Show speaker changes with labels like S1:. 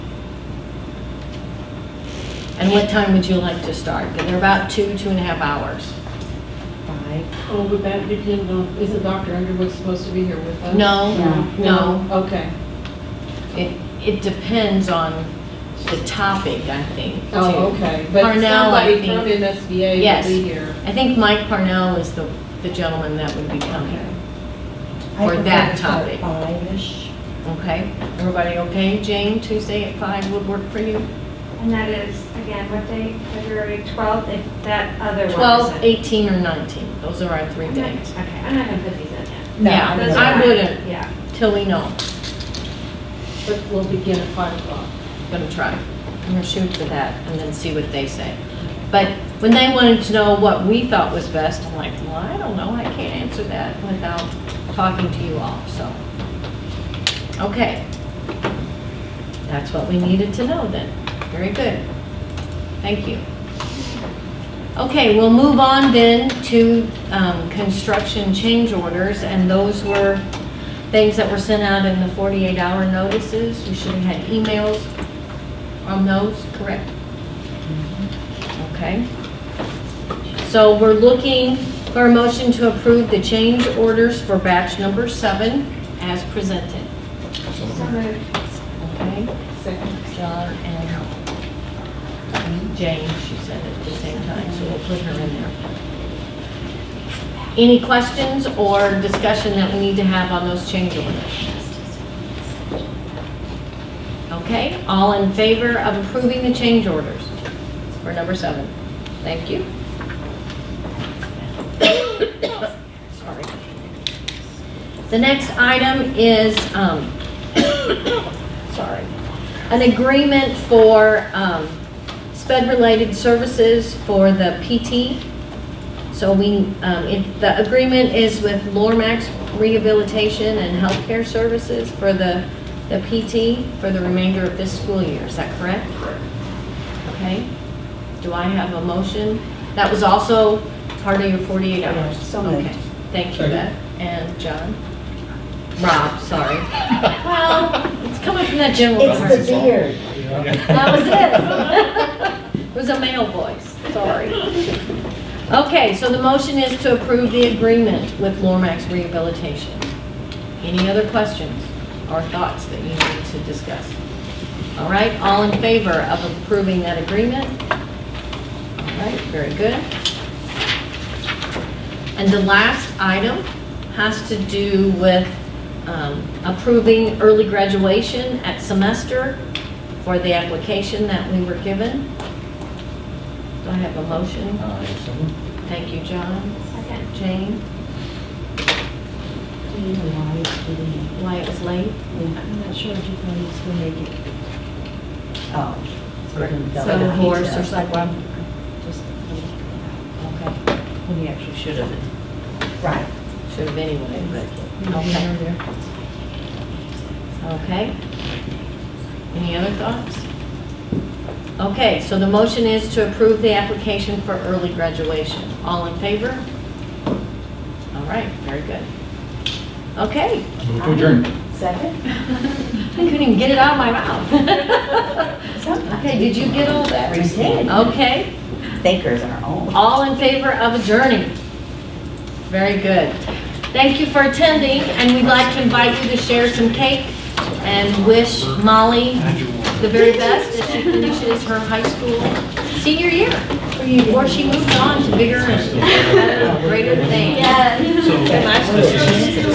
S1: And what time would you like to start? They're about two, two and a half hours.
S2: Five.
S3: Oh, would that depend on, isn't Dr. Underwood supposed to be here with us?
S1: No, no,
S3: Okay.
S1: it, it depends on the topic, I think.
S3: Oh,
S1: too.
S3: okay. But
S1: Parnell, I
S3: somebody
S1: think.
S3: from MSBA
S1: Yes.
S3: will be here.
S1: I think Mike Parnell is the, the gentleman that would be
S3: Okay.
S1: coming, Or that topic.
S2: Five-ish.
S1: okay? Everybody okay? Jane, Tuesday at five would work for you?
S4: And that is, again, what day, February 12th, if that other one.
S1: Twelve,
S4: is-
S1: eighteen, or nineteen, those are our three
S4: I'm not-
S1: days.
S4: Okay, I'm not gonna put these in yet.
S2: No,
S1: Yeah,
S2: don't
S4: Those
S2: know.
S1: I
S4: are-
S1: wouldn't.
S4: Yeah.
S1: Till we know,
S3: But we'll begin at 5 o'clock.
S1: gonna try, I'm gonna shoot for that and then see what they say. But when they wanted to know what we thought was best, I'm like, well, I don't know, I can't answer that without talking to you all, so. Okay. That's what we needed to know then, very good, thank you. Okay, we'll move on then to um, construction change orders, and those were things that were sent out in the 48-hour notices. You should have had emails on those, correct? Okay. So we're looking for a motion to approve the change orders for batch number seven as presented.
S4: So moved.
S1: Okay?
S3: Second.
S1: John and Jane, she said at the same time, so we'll put her in there. Any questions or discussion that we need to have on those change orders? Okay, all in favor of approving the change orders for number seven? Thank you. Sorry. The next item is, um, sorry, an agreement for um, sped-related services for the PT. So we, um, it- the agreement is with Lormax Rehabilitation and Healthcare Services for the the PT for the remainder of this school year. Is that correct? Correct. Okay. Do I have a motion? That was also part of your 48 hours?
S2: Yeah, so moved.
S1: Okay. Thank you,
S5: Second.
S1: Beth. And John? Rob, sorry. Well, it's coming from that general.
S2: It's
S1: part.
S2: the beard.
S1: That was it. It was a male voice, sorry. Okay, so the motion is to approve the agreement with Lormax Rehabilitation. Any other questions or thoughts that you need to discuss? All right, all in favor of approving that agreement? All right, very good. And the last item has to do with um, approving early graduation at semester for the application that we were given. Do I have a motion?
S5: Uh,
S1: Thank you, John.
S4: Second.
S1: Jane,
S2: Do you know why it's getting-
S1: why it was late?
S2: I'm not sure if you can use the make it. Oh.
S1: So
S2: the
S1: horse or something?
S2: Just
S1: Okay,
S2: When he actually should have. Right.
S1: should have anyway, but, okay, okay. Any other thoughts? Okay, so the motion is to approve the application for early graduation. All in favor? All right, very good. Okay.
S5: Move to adjourn.
S2: Second?
S1: I couldn't even get it out of my mouth. Okay, did you get all that?
S2: We did.
S1: Okay,
S2: Thinkers are own.
S1: all in favor of adjourning? Very good. Thank you for attending, and we'd like to invite you to share some cake and wish Molly the very best as she finishes her high school senior year, or she moves on to bigger and better, greater